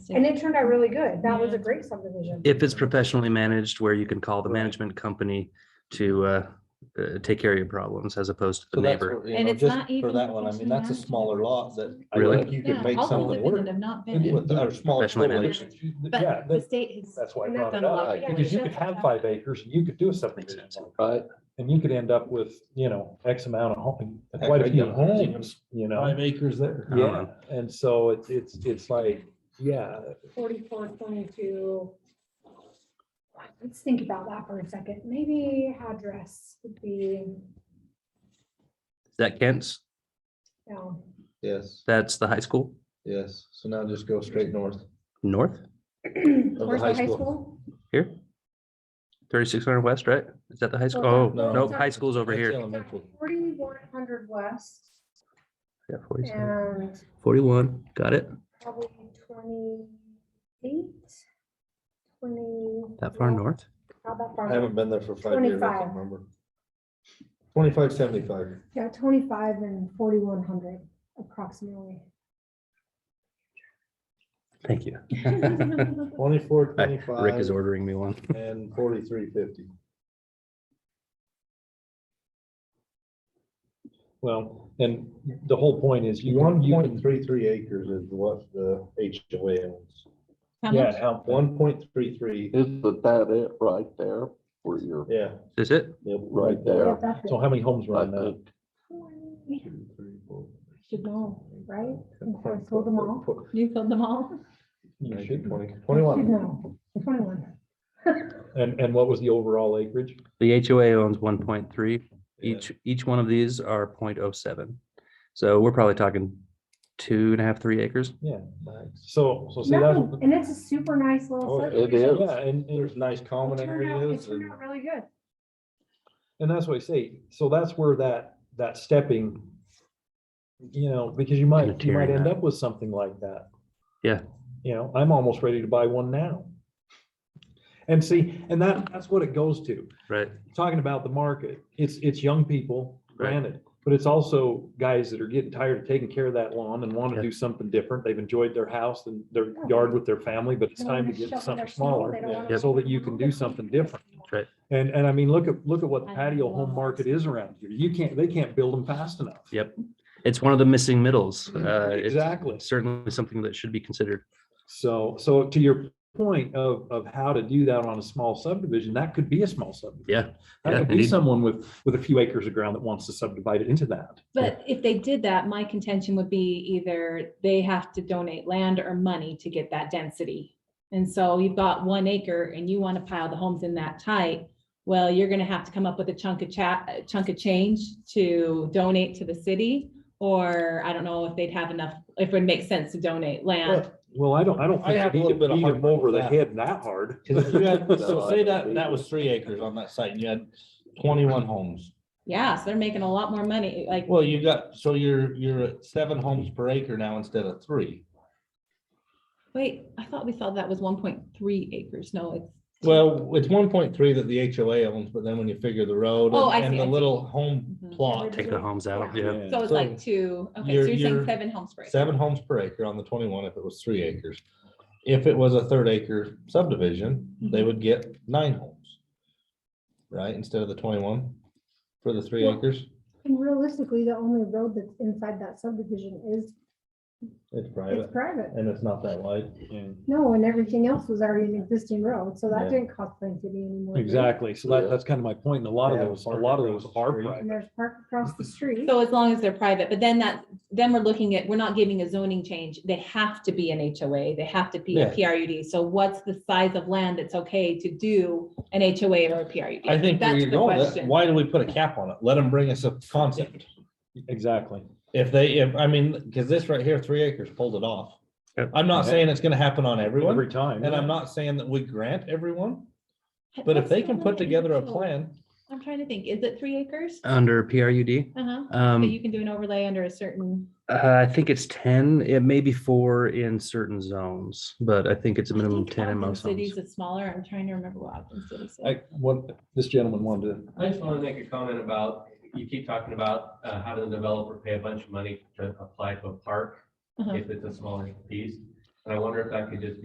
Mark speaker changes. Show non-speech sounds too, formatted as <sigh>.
Speaker 1: And it turned out really good. That was a great subdivision.
Speaker 2: If it's professionally managed, where you can call the management company to uh, uh, take care of your problems as opposed to the
Speaker 3: So that's
Speaker 2: neighbor.
Speaker 3: what, you
Speaker 4: And
Speaker 3: know,
Speaker 4: it's
Speaker 3: just
Speaker 4: not
Speaker 3: for
Speaker 4: even
Speaker 3: that one, I mean,
Speaker 4: professionally
Speaker 3: that's a
Speaker 4: managed.
Speaker 3: smaller lot that I
Speaker 2: Really?
Speaker 3: think you could make
Speaker 4: all
Speaker 3: something
Speaker 4: independent
Speaker 3: work
Speaker 4: Have not been,
Speaker 3: with our small.
Speaker 2: Professionally
Speaker 3: village.
Speaker 4: but
Speaker 5: Yeah,
Speaker 4: the
Speaker 5: that-
Speaker 4: state has.
Speaker 5: that's why I
Speaker 1: And
Speaker 5: brought
Speaker 1: that's
Speaker 5: it
Speaker 1: a lot,
Speaker 5: up,
Speaker 1: yeah,
Speaker 5: because you
Speaker 4: that's
Speaker 5: could have
Speaker 4: a-
Speaker 5: five acres and you could do a subdivision.
Speaker 3: Right,
Speaker 5: And you could end up with, you know, X amount of home,
Speaker 3: Heck,
Speaker 5: quite
Speaker 3: I
Speaker 5: a few
Speaker 3: know.
Speaker 5: homes, you know?
Speaker 6: Five acres there.
Speaker 2: I don't
Speaker 5: Yeah, and so it's, it's, it's like, yeah,
Speaker 1: Forty-four, twenty-two. Let's think about that for a second. Maybe address would be,
Speaker 2: Is that Kent's?
Speaker 1: no,
Speaker 3: yes,
Speaker 2: That's the high school
Speaker 3: yes. So now just go straight north.
Speaker 2: north
Speaker 1: towards the
Speaker 3: high
Speaker 1: high
Speaker 3: school.
Speaker 1: school.
Speaker 2: here. Thirty-six hundred west, right? Is that the high school? Oh,
Speaker 1: Oh,
Speaker 3: no.
Speaker 2: no, high school's over
Speaker 3: That's
Speaker 2: here.
Speaker 3: Elementary.
Speaker 1: Forty-one hundred west
Speaker 2: Yeah, 47.
Speaker 1: and
Speaker 2: Forty-one, got it?
Speaker 1: probably twenty-eight. Twenty.
Speaker 2: That far
Speaker 1: no,
Speaker 2: north?
Speaker 1: Not that
Speaker 3: I
Speaker 1: far.
Speaker 3: haven't been there for five years, I can't
Speaker 1: 25.
Speaker 3: remember. Twenty-five seventy-five.
Speaker 1: Yeah, twenty-five and forty-one hundred approximately.
Speaker 2: Thank you.
Speaker 3: Twenty-four,
Speaker 2: Hi, Rick is
Speaker 3: twenty-five,
Speaker 2: ordering me one.
Speaker 3: and forty-three fifty.
Speaker 5: well, and the whole point is you.
Speaker 3: One
Speaker 5: you
Speaker 3: point
Speaker 5: can-
Speaker 3: three three acres is what the HOA owns.
Speaker 4: How
Speaker 5: Yeah,
Speaker 4: much?
Speaker 5: how-
Speaker 3: One point three three,
Speaker 7: Isn't that it right there for your,
Speaker 3: yeah.
Speaker 2: Is it?
Speaker 7: right
Speaker 1: Yeah,
Speaker 7: there?
Speaker 1: that's
Speaker 5: So how many homes are
Speaker 7: I
Speaker 5: on that?
Speaker 7: think
Speaker 1: it.
Speaker 3: Two, three, four,
Speaker 1: Should know, right? I told them all.
Speaker 4: You filled them all?
Speaker 5: You
Speaker 3: Nineteen,
Speaker 5: should,
Speaker 3: twenty,
Speaker 1: Should
Speaker 3: twenty-one.
Speaker 1: know, twenty-one.
Speaker 5: and, and what was the overall acreage?
Speaker 2: The HOA owns one point three. Each, each one of these are 0.07. So we're probably talking two and a half, three acres.
Speaker 5: So, so see, that's,
Speaker 1: No, and it's a super nice little.
Speaker 3: Oh, it
Speaker 7: is.
Speaker 5: yeah, and, and
Speaker 3: There's nice common
Speaker 1: It turned out, it
Speaker 3: areas
Speaker 1: turned
Speaker 3: and
Speaker 1: out really good.
Speaker 5: And that's what I say, so that's where that, that stepping, you know, because you might, you might
Speaker 2: Unitarian.
Speaker 5: end up with something like that.
Speaker 2: Yeah.
Speaker 5: You know, I'm almost ready to buy one now. And see, and that, that's what it goes to,
Speaker 2: Right.
Speaker 5: talking about the market, it's, it's young people,
Speaker 2: Right.
Speaker 5: granted. But it's also guys that are getting tired of taking care of that lawn and want
Speaker 2: Yeah.
Speaker 5: to do something different, they've enjoyed their house and their
Speaker 1: Yeah.
Speaker 5: yard with their family, but it's
Speaker 1: They
Speaker 5: time
Speaker 1: wanna
Speaker 5: to get
Speaker 1: shovel their
Speaker 5: something
Speaker 1: snow,
Speaker 5: smaller.
Speaker 1: they don't wanna-
Speaker 5: yeah, So that you can do something different. And, and I mean, look at, look at what the
Speaker 4: I
Speaker 5: patio
Speaker 4: love
Speaker 5: home
Speaker 4: it.
Speaker 5: market is around here. You can't, they can't build them fast enough.
Speaker 2: Yep. It's one of the missing middles. Uh, it's
Speaker 5: Exactly.
Speaker 2: Certainly something that should be considered.
Speaker 5: So, so to your point of, of how to do that on a small subdivision, that could be a small subdivision.
Speaker 2: Yeah.
Speaker 5: That
Speaker 2: yeah,
Speaker 5: could be
Speaker 2: indeed.
Speaker 5: someone with, with a few acres of ground that wants to subdivide it into that.
Speaker 4: But if they did that, my contention would be either they have to donate land or money to get that density. And so you've got one acre and you want to pile the homes in that tight. Well, you're going to have to come up with a chunk of cha, a chunk of change to donate to the city. Or I don't know if they'd have enough, if it would make sense to donate land.
Speaker 5: Well, I don't, I don't
Speaker 3: I
Speaker 5: think
Speaker 3: have a
Speaker 5: you
Speaker 3: little
Speaker 5: need
Speaker 3: bit
Speaker 5: to
Speaker 3: of
Speaker 5: beat
Speaker 3: heart
Speaker 5: them over the
Speaker 3: with that.
Speaker 5: head that hard.
Speaker 3: 'Cause if you <laughs> had-
Speaker 7: No,
Speaker 3: So
Speaker 7: I
Speaker 3: say
Speaker 7: don't
Speaker 3: that,
Speaker 7: believe
Speaker 3: that
Speaker 7: it.
Speaker 3: was three acres on that site and you had twenty-one homes.
Speaker 4: Yeah, so they're making a lot more money, like.
Speaker 8: Well, you got, so you're, you're at seven homes per acre now instead of three.
Speaker 4: Wait, I thought we thought that was one point three acres. No, it's.
Speaker 8: Well, it's one point three that the HOA owns, but then when you figure the road
Speaker 4: Oh, I
Speaker 8: and-
Speaker 4: see,
Speaker 8: and
Speaker 4: I
Speaker 8: the
Speaker 4: see.
Speaker 8: little home
Speaker 4: Mhm.
Speaker 8: plot,
Speaker 2: Take the homes out. Yeah.
Speaker 4: So it's
Speaker 8: so
Speaker 4: like two, okay,
Speaker 8: you're-
Speaker 4: so you're saying
Speaker 8: you're-
Speaker 4: seven homes per acre.
Speaker 8: seven homes per acre on the twenty-one if it was three acres. If it was a third acre subdivision,
Speaker 4: Mhm.
Speaker 8: they would get nine homes. Right, instead of the twenty-one for the three
Speaker 1: Yeah.
Speaker 8: acres.
Speaker 1: And realistically, the only road that's inside that subdivision is,
Speaker 3: It's
Speaker 1: it's
Speaker 3: private
Speaker 1: private.
Speaker 3: and it's not that wide.
Speaker 1: No, and everything else was already an existing road, so that
Speaker 3: Yeah.
Speaker 1: didn't cost Plain City anymore.
Speaker 5: Exactly. So that, that's kind of my point. And a lot of
Speaker 3: Yeah,
Speaker 5: those, a
Speaker 3: park
Speaker 5: lot of
Speaker 3: across
Speaker 5: those
Speaker 3: the
Speaker 5: are
Speaker 3: street.
Speaker 5: private.
Speaker 1: And there's park across the street.
Speaker 4: So as long as they're private, but then that, then we're looking at, we're not giving a zoning change. They have to be an HOA. They have to be a
Speaker 8: Yeah.
Speaker 4: PRUD. So what's the size of land that's okay to do an HOA or a PRUD?
Speaker 8: I think where
Speaker 4: That's
Speaker 8: you're
Speaker 4: the
Speaker 8: going, that-
Speaker 4: question.
Speaker 8: why do we put a cap on it? Let them bring us a concept.
Speaker 5: Exactly.
Speaker 8: If they, if, I mean, because this right here, three acres pulled it off.
Speaker 2: Yep.
Speaker 8: I'm not saying it's gonna happen on
Speaker 5: Every
Speaker 8: everyone,
Speaker 5: time.
Speaker 8: and I'm not saying that we grant everyone,
Speaker 4: But
Speaker 8: but if
Speaker 4: what's
Speaker 8: they
Speaker 4: the
Speaker 8: can put
Speaker 4: limit?
Speaker 8: together a
Speaker 4: So,
Speaker 8: plan.
Speaker 4: I'm trying to think, is it three acres?
Speaker 2: Under PRUD.
Speaker 4: Uh-huh. So
Speaker 2: Um,
Speaker 4: you can do an overlay under a certain,
Speaker 2: Uh, I think it's ten, it may be four in certain zones, but I think it's a
Speaker 4: I
Speaker 2: minimum
Speaker 4: think
Speaker 2: ten in
Speaker 4: Ogden
Speaker 2: most zones.
Speaker 4: Cities is smaller. I'm trying to remember what Ogden City said.
Speaker 5: I, what this gentleman wanted to,
Speaker 9: I just want to make a comment about, you keep talking about uh, having the developer pay a bunch of money to apply to a park
Speaker 4: Uh-huh.
Speaker 9: if it's a smaller piece. And I wonder if that could just be